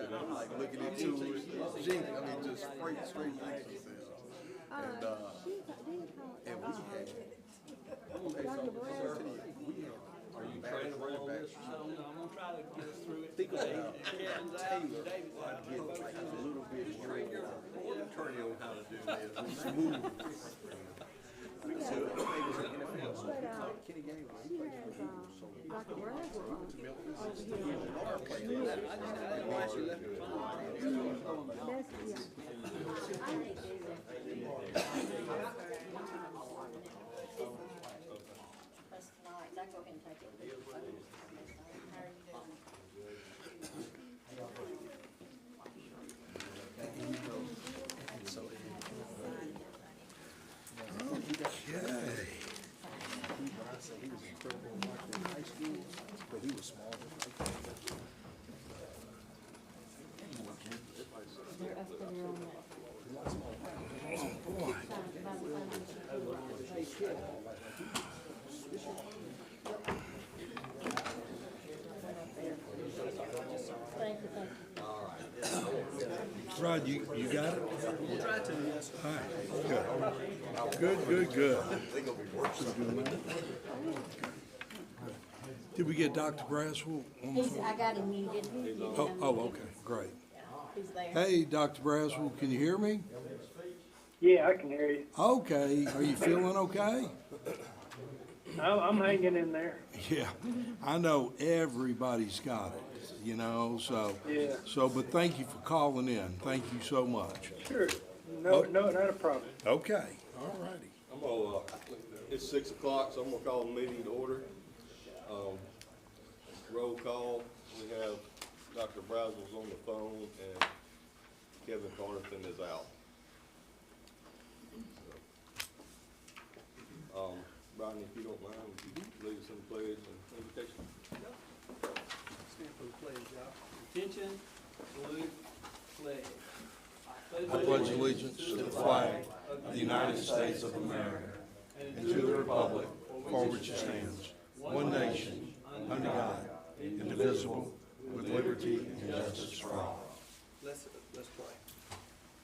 like looking into it, Jinx, I mean, just straight, straight Jinx. And, uh, and we had, we had. Are you trying to roll this? I'm gonna try to get us through it. Think about today. it. Kevin's out, Taylor, David's I out. get like a little bit worried. Attorney on how to do this. Smooth. So, I think it was an NFL, so Kenny Gaines, he played for the Eagles, so he was a star player. That's not, I go ahead and take it. How are you doing? He was incredible in high school, but he was small. Rod, you, you got it? We'll try to, yes. All right, good. Good, good, good. Did we get Dr. Braswell? one more He's, time? I got him muted. Oh, oh, okay, great. He's there. Hey, Dr. Braswell, can you hear me? Yeah, I can hear you. Okay, are you feeling okay? I'm, I'm hanging in there. Yeah, I know everybody's got it, you know, so. Yeah. So, but thank you for calling in. Thank you so much. Sure. Oh. No, no, not a problem. Okay, all righty. I'm gonna, uh, it's six o'clock, so I'm gonna call the meeting to order. Um, roll call, we have Dr. Brazel's on the phone and Kevin Carnathan is out. So, Um, Rodney, if you don't mind, would you lead us in the pledge and invocation? Stand for the pledge, y'all. Attention, salute, pledge. I pledge allegiance to the flag of the United States of America and to the republic for which it stands, one nation, under God, indivisible, with liberty and justice for all. Let's, let's pray.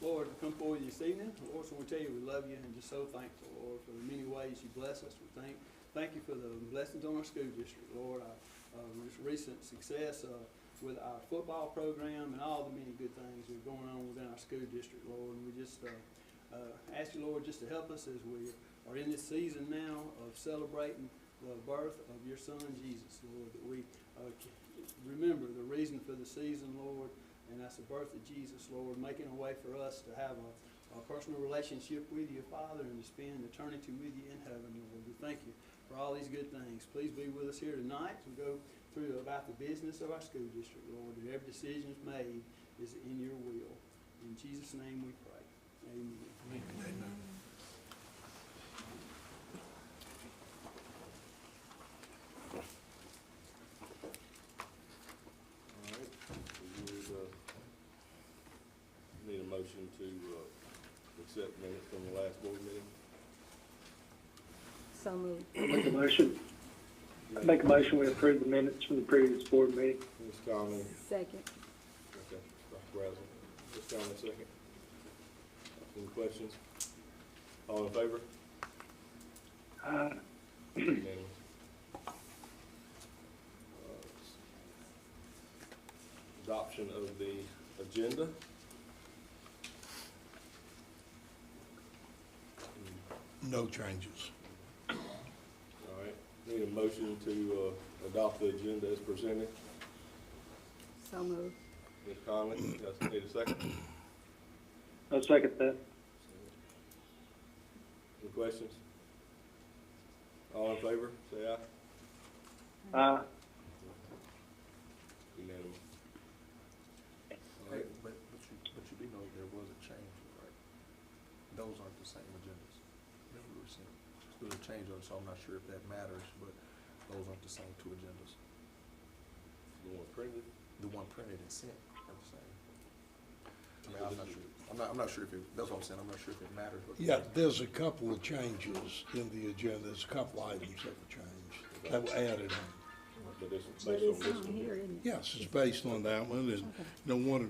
Lord, we come forward this evening. Lord, so we tell you we love you and just so thankful, Lord, for the many ways you bless us. We thank, thank you for the blessings on our school district, Lord, our, uh, this recent success, uh, with our football program and all the many good things that are going on within our school district, Lord. And we just, uh, uh, ask you, Lord, just to help us as we are in this season now of celebrating the birth of your son, Jesus, Lord, that we, uh, c- remember the reason for the season, Lord, and that's the birth of Jesus, Lord, making a way for us to have a, a personal relationship with you, Father, and to spend eternity with you in heaven, Lord. We thank you for all these good things. Please be with us here tonight as we go through about the business of our school district, Lord, that every decision is made is in your will. In Jesus' name we pray. Amen. All right, we would, uh, need a motion to, uh, accept minutes from the last board meeting. So moved. Make a motion. I make a motion we approve the minutes from the previous board meeting. Ms. Conley, Second. Okay, Dr. Brazel, just down a second. Any questions? All in favor? Uh, Unanimous. Adoption of the agenda. No changes. All right, need a motion to, uh, adopt the agenda as presented. So moved. Ms. Conley, yes, need a second? I'll second that. Any questions? All in favor, say aye. Uh, Unanimous. All Hey, right, But, but you, but you do know there was a change, right? Those aren't the same agendas. Remember we were saying, there's a change on, it, so I'm not sure if that matters, but those aren't the same two agendas. The one printed? The one printed and sent are the same. I mean, I'm not sure, I'm not, I'm not sure if it, that's what I'm saying, I'm not sure if it matters. but- Yeah, there's a couple of changes in the agenda, there's a couple items that were changed, that were added on. But it's based But on it's this on one. here, isn't it? Yes, it's based on that one, and, you know, one of the